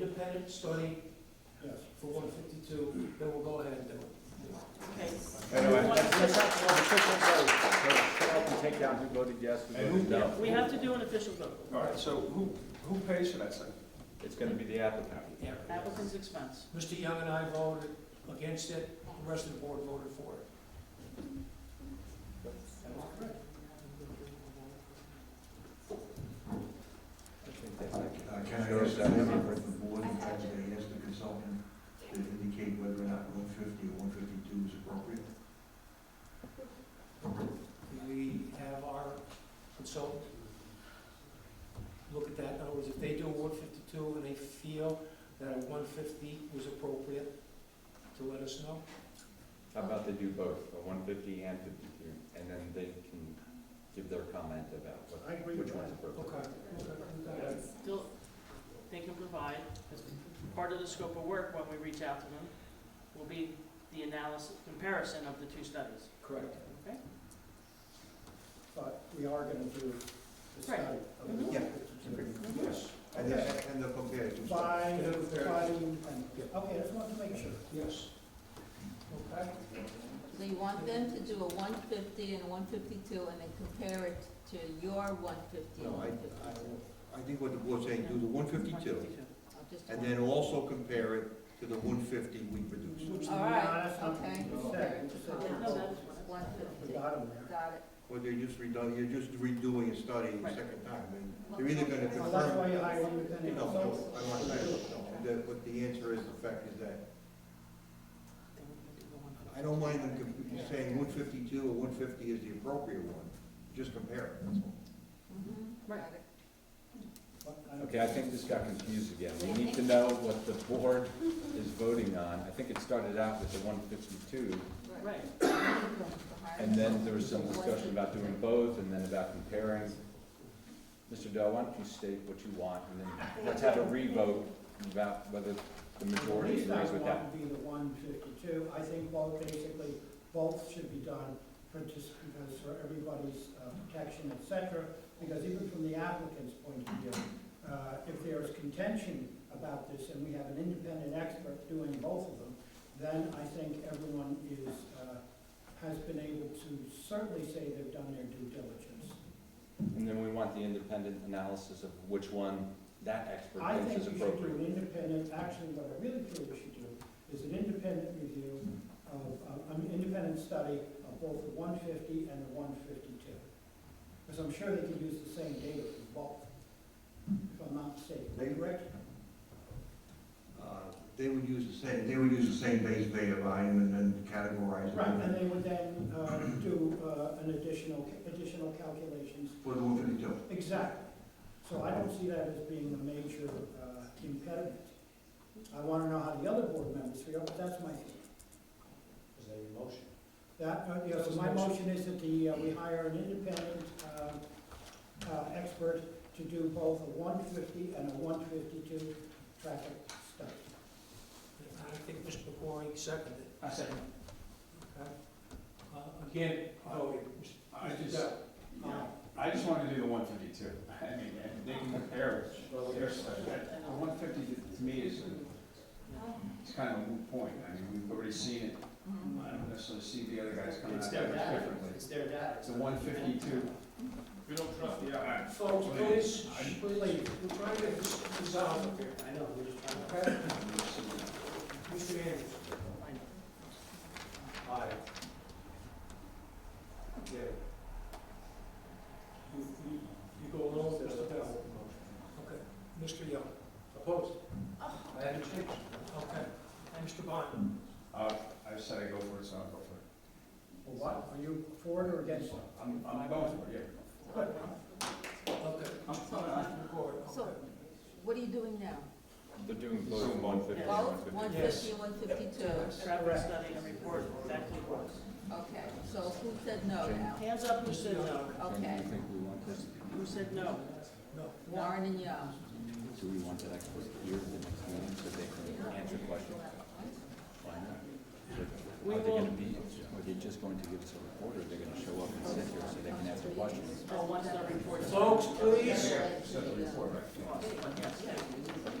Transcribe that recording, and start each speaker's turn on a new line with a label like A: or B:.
A: independent study uh,
B: Yes.
A: for one fifty-two, then we'll go ahead and do it.
C: Okay.
B: Anyway.
C: Anyway.
B: Official vote, so shut up and take down who voted yes, who
D: And who-
B: voted no.
C: We have to do an official vote,
D: All right, so who, who pays for that thing?
B: It's gonna be the applicant.
A: Yeah.
C: applicant's expense.
A: Mr. Young and I voted against it, the rest of the board voted for it. That was correct.
B: I think that's like-
E: Uh, Can I ask a member of the board, if I may ask the consultant to indicate whether or not one fifty or one fifty-two is appropriate?
A: We have our consultant look at that, in other words, if they do a one fifty-two and they feel that a one fifty was appropriate, to let us know.
F: How about they do both, a one fifty and fifty-two, and then they can give their comment about what,
B: I agree with
F: which one's appropriate.
A: Okay, okay, we got it.
C: Still, they can provide, as part of the scope of work when we reach out to them, will be the analysis, comparison of the two studies.
A: Correct.
C: Okay.
A: But we are gonna do the
C: study Right. Mhm.
E: Yeah.
C: Mm-hmm.
A: Yes.
E: And then, and the compared to.
A: okay, I just wanted to make sure. Yes. Okay.
G: So you want them to do a one fifty and a one fifty-two and then compare it to your one fifty and
E: No, I,
G: one
E: I,
G: fifty-two?
E: I think what the board's saying, do the one fifty-two,
C: 152.
E: and then also compare it to the one fifty we produced.
G: All right, okay.
C: No, that was one.
G: One fifty, got
A: got him there.
G: it.
E: Or they're just redoing, you're just redoing a study a
C: Right.
E: second time, I mean, they're either gonna
G: Well,
E: confirm.
G: that's why you hire
E: No,
G: independent
E: no,
G: consultants.
E: I want that, no, that, but the answer is, the fact is that,
C: They were gonna do the one-
E: I don't mind them com- saying one fifty-two or one fifty is the appropriate one, just compare it, that's all.
G: Mhm, got it.
F: Okay, I think this got confused again. We need to know what the board is voting on. I think it started out with the one fifty-two,
C: Right,
F: and then there was some discussion about doing both, and then about comparing. Mr. Dell, why don't you state what you want, and then let's have a revote about whether the majority agrees with that.
A: would be the one fifty-two, I think both, basically, both should be done for just because for everybody's uh, protection, et cetera, because even from the applicant's point of view, uh, if there is contention about this and we have an independent expert doing both of them, then I think everyone is, uh, has been able to certainly say they've done their due diligence.
F: And then we want the independent analysis of which one that
A: I
F: expert
A: think
F: thinks
A: you
F: is
A: should do
F: appropriate.
A: an independent, actually, what I really feel you should do is an independent review of, of- an independent study of both the one fifty and the one fifty-two. Because I'm sure they could use the same data for both, if I'm not mistaken.
E: They rec- Uh, They would use the same, they would use the same base beta volume and then categorize it.
A: Right, and they would then, uh, do, uh, an additional, additional calculations,
E: For the one fifty-two.
A: exactly. So I don't see that as being a major, uh, impediment. I wanna know how the other board members feel, but that's my feeling.
B: Is that your motion?
A: That, uh, yeah, so my motion is that the, uh, we hire an independent, um, uh, expert to do both a one fifty and a one fifty-two traffic study. I think Mr. Pecori seconded it.
B: I second.
A: Okay. Uh, again, voting,
D: Oh, I just, I just wanna do the one fifty-two. I mean, and they can compare it, their study. That- The one fifty to me is, a- it's kind of a moot point. I mean, we've already seen it. I don't necessarily see the other guys coming out with it differently.
B: It's their data.
D: It's a one fifty-two.
B: We don't trust the
A: Folks, please, please, we're trying to resolve here. I know, we're just trying to. Mr. Anderson.
C: I know.
B: Aye. Yeah.
A: You, you, you go along with Mr. Bell. Okay. Mr. Young. Opposed? I had a change. Okay. And Mr. Bond?
D: Uh, I said I go for it, so I'll go for it.
A: What, are you for it or against it?
D: I'm, I'm going for it,
A: Okay.
D: yeah. I'm-
G: So, what are you doing now?
F: They're doing both in one fifty and one
G: Both,
F: fifty-two.
G: one fifty and one fifty-two?
C: Traffic study and report, exactly what.
G: Okay, so who said no now?
C: Hands up who said no.
F: And
G: Okay,
F: you think we want this,
C: Who said no?
A: No.
G: Warren and Young.
F: do we want that expert here at the next meeting so they can answer questions? Why not? Are they gonna be, are they just going to give us a report or are they gonna show up and sit here so they can answer questions?
C: Oh, once the report's.
A: Folks, please.
D: Said the report, right?
C: Yes.